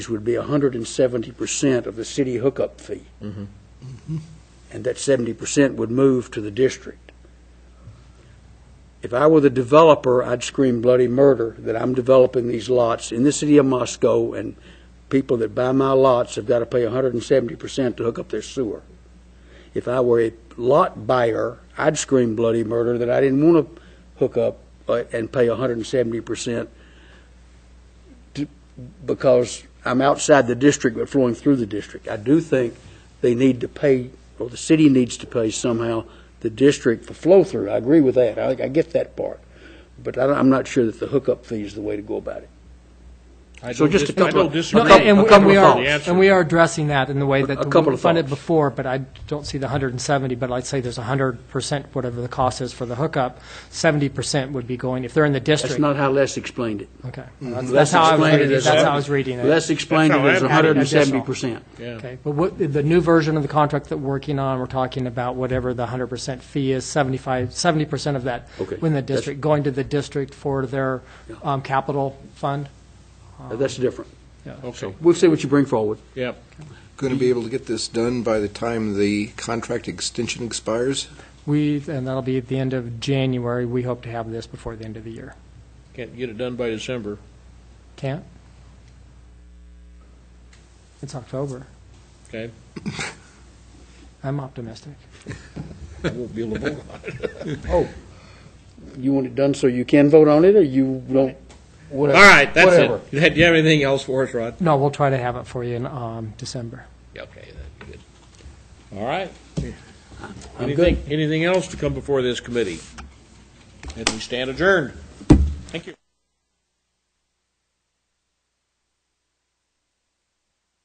which would be 170% of the city hookup fee. Mm-hmm. And that 70% would move to the district. If I were the developer, I'd scream bloody murder that I'm developing these lots in the city of Moscow, and people that buy my lots have got to pay 170% to hook up their sewer. If I were a lot buyer, I'd scream bloody murder that I didn't want to hook up uh, and pay 170% to- because I'm outside the district but flowing through the district. I do think they need to pay, or the city needs to pay somehow, the district for flow-through. I agree with that. I, I get that part. But I, am not sure that the hookup fee is the way to go about it. I So don't just a dis- I couple don't of- disagree. a couple- with the a couple answer. of The thoughts. answer- And we are addressing that in the way A that couple we've of done it thoughts. before, but I don't see the 170, but I'd say there's 100%, whatever the cost is for the hookup, 70% would be going, if they're in the That's district. not Mm-hmm. how Les explained it. Okay. That's- That's how I was reading, that's how I was reading it. Les explained it That's as how I- hundred and seventy percent. Okay, but what, the new version of the contract that we're working on, we're talking about whatever the hundred percent fee is, seventy-five, seventy percent of that Okay, within the that's- district, going to the district for their um, capital fund. That's different. Okay, We'll see what you bring forward. yeah. Going to be able to get this done by the time the contract extension expires? We, and that'll be at the end of January, we hope to have this before the end of the year. Can't get it done by December. Can't? It's October. Okay. I'm optimistic. I won't be able to vote. Oh, you want it done so you can vote on it, or you don't? All right, that's it. Do you have anything else for us, Rod? No, we'll try to have it for you in um, December. Yeah, Okay, that'd be good. All right. I'm good. Anything, anything else to come before this committee? And we stand adjourned. Thank you.